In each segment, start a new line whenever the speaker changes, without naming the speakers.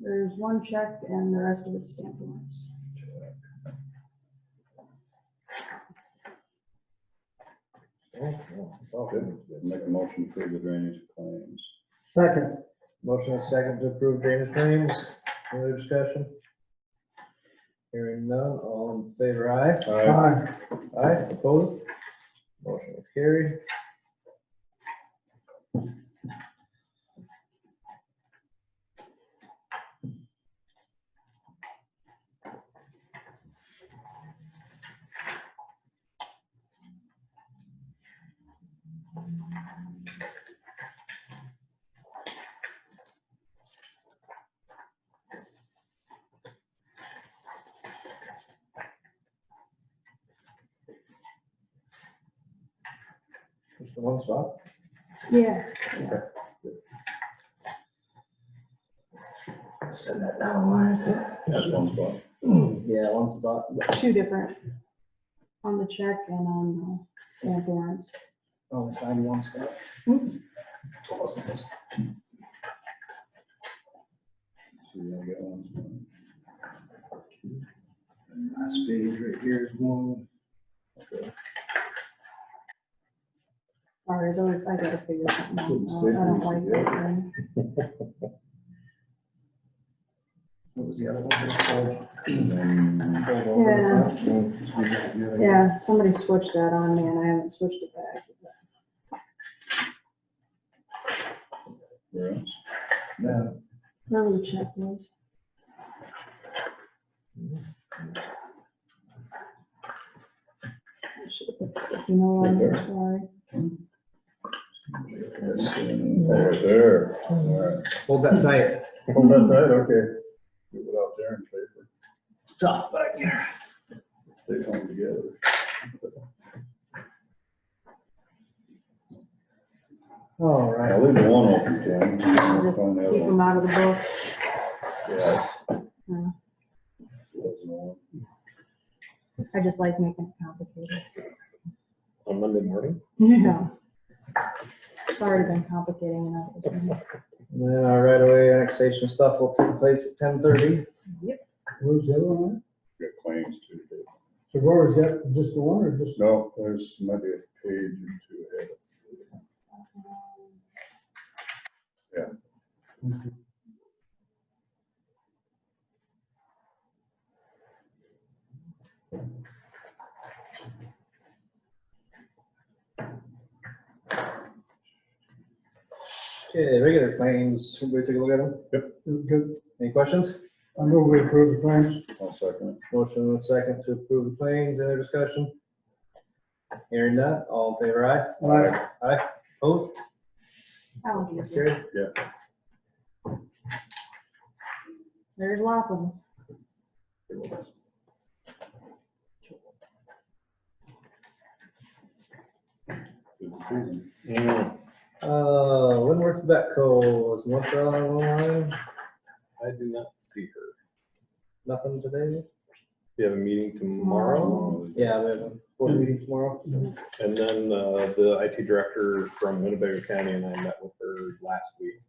There's one check and the rest of it's stamped warrants.
Make a motion for the drainage claims.
Second,
Motion is second to approve drainage claims. Any other discussion? Hearing none, all in favor, aye.
aye.
Aye, opposed? Motion will carry. Just the one spot.
Yeah.
Send that down line.
That's one spot.
Yeah, one spot.
Two different, on the check and on the stamp warrants.
Only sign Oh, one spot.
Hmm.
Awesome.
So you only get one spot.
Last page right here is one.
Sorry, those, I gotta figure something out.
Couldn't
so I don't
stay
like
there.
that thing.
What was the other one?
Um,
Yeah.
Yeah.
Yeah, somebody switched that on me and I haven't switched it back.
Where else?
Yeah.
Remember the check was? I should have put sticky note on there, sorry.
There, there. All right.
Hold that tight.
Well, that's it, okay. Get it out there and paper.
Stop back here.
Stay home together.
All right.
I'll leave the one open, Ken.
Just
Find the other
keep
one.
them out of the book.
Yeah.
Yeah.
That's the one.
I just like making it complicated.
on Monday morning.
Yeah. It's already been complicating enough. this morning.
And then our right away annexation stuff will take place at ten thirty.
Where's the other one?
Got claims too. Dave.
So Rory, is that just the one or just?
No, there's maybe a page or two ahead.
Okay, regular claims. Everybody take a look at them.
Good.
Any questions?
I know we approved the claims.
I'll second
Motion with second to approve the claims. Any other discussion? Hearing none. All in favor, aye?
Aye.
Aye. Opposed?
That was easy.
Carried.
There's lots of them.
it. Busy season.
Uh, Winworth Betco is what's on the line?
I do not see her.
Nothing today?
We have a meeting tomorrow,
Tomorrow is-
Yeah, we have a board meeting tomorrow.
and then uh, the IT director from Winnebago County and I met with her last week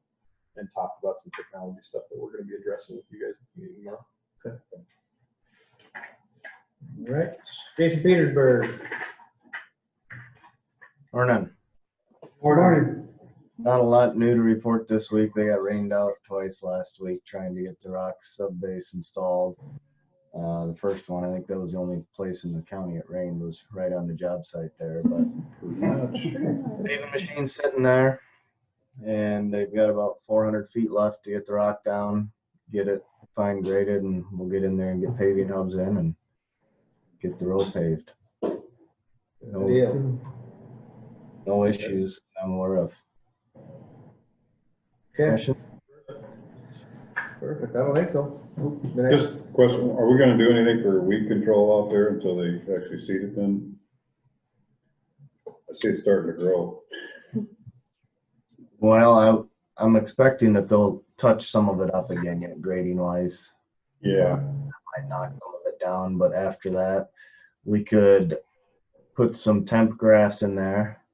and talked about some technology stuff that we're gonna be addressing with you guys at the meeting tomorrow.
All right. Jason Petersburg.
Or none.
Morning.
Not a lot new to report this week. They got rained out twice last week trying to get the rock sub base installed. Uh, the first one, I think that was the only place in the county it rained was right on the job site there, but
Pretty
Uh,
much.
they have a machine sitting there and they've got about four hundred feet left to get the rock down, get it fine graded and we'll get in there and get paving hubs in and get the road paved.
Good
No,
deal.
no issues I'm aware of.
Okay,
Question?
perfect. I don't think so. Been a-
Just question, are we gonna do anything for weed control out there until they actually seed it then? I see it's starting to grow.
Well, I, I'm expecting that they'll touch some of it up again, yet grading wise.
Yeah.
Might knock some of it down, but after that, we could put some temp grass in there